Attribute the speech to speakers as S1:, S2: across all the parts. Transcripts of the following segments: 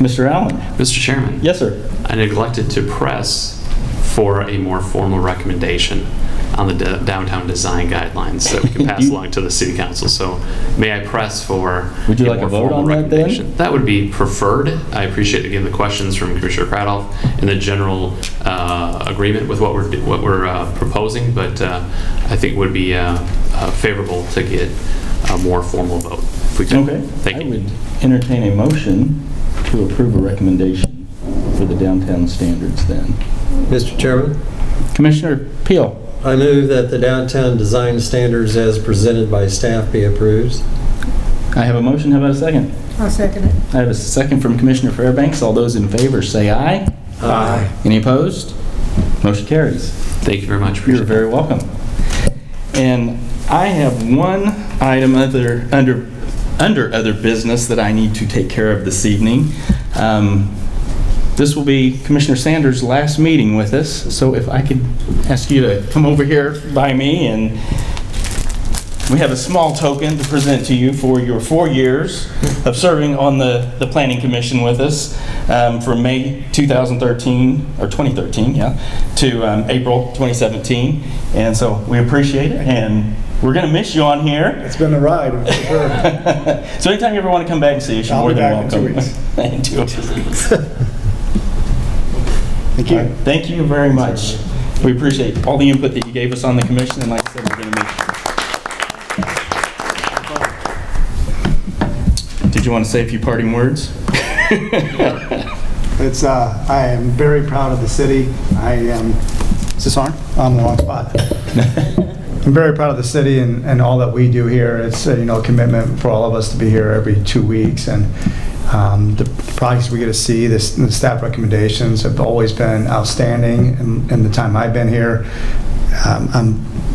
S1: Mr. Allen?
S2: Mr. Chairman?
S1: Yes, sir.
S2: I neglected to press for a more formal recommendation on the d- downtown design guidelines that we can pass
S1: You-
S2: along to the city council. So may I press for?
S1: Would you like a
S2: more
S1: vote
S2: formal
S1: on that then?
S2: recommendation? That would be preferred. I appreciate, again, the questions from Commissioner Cradoff and the general uh, agreement with what we're, do- what we're uh, proposing, but uh, I think would be uh, uh, favorable to get a more formal vote. if we could.
S1: Okay.
S2: Thank
S1: I
S2: you.
S1: would entertain a motion to approve a recommendation for the downtown standards then.
S3: Mr. Chairman,
S1: Commissioner Peel?
S3: I move that the downtown design standards as presented by staff be approved.
S1: I have a motion, how about a second?
S4: I'll second it.
S1: I have a second from Commissioner Fairbanks. All those in favor say aye.
S3: Aye.
S1: Any opposed? Motion carries.
S2: Thank you very much.
S1: You're
S2: Appreciate it.
S1: very welcome. And I have one item other, under, under other business that I need to take care of this evening. Um, This will be Commissioner Sanders' last meeting with us, so if I could ask you to come over here by me, and we have a small token to present to you for your four years of serving on the, the Planning Commission with us um, from May 2013, or 2013, yeah, to um, April 2017. And so we appreciate it, and we're going to miss you on here.
S5: It's been a ride, for sure.
S1: So anytime you ever want to come back and see us, you're
S5: I'll
S1: more
S5: be
S1: than
S5: back in
S1: welcome.
S5: two weeks.
S1: In two weeks.
S5: Thank you.
S1: Thank you very much. We appreciate all the input that you gave us on the commission, and like I said, we're going to make. Did you want to say a few parting words?
S5: It's, uh, I am very proud of the city. I am, is this on? I'm in the wrong spot. I'm very proud of the city and, and all that we do here. It's, uh, you know, a commitment for all of us to be here every two weeks. And um, the projects we get to see, the s- the staff recommendations have always been outstanding in in the time I've been here. Um, I'm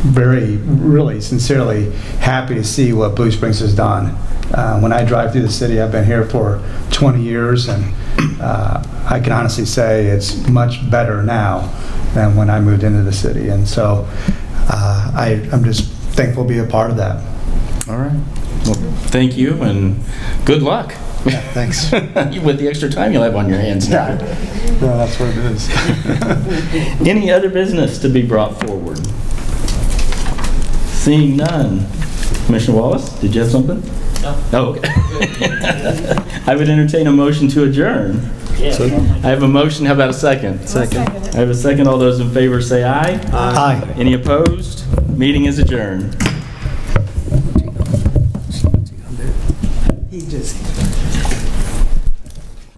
S5: very, really sincerely happy to see what Blue Springs has done. Uh, When I drive through the city, I've been here for 20 years, and uh, I can honestly say it's much better now than when I moved into the city. And so uh, I, I'm just thankful to be a part of that.
S1: All right. Well, thank you, and good luck
S5: Thanks.
S1: with the extra time you'll have on your hands now.
S5: That's what it is.
S1: Any other business to be brought forward? Seeing none. Commissioner Wallace, did you have something? No. Oh, okay. I would entertain a motion to adjourn. I have a motion, how about a second?
S4: I'll second it.
S1: I have a second, all those in favor say aye.
S5: Aye.
S1: Any opposed? Meeting is adjourned.
S6: He just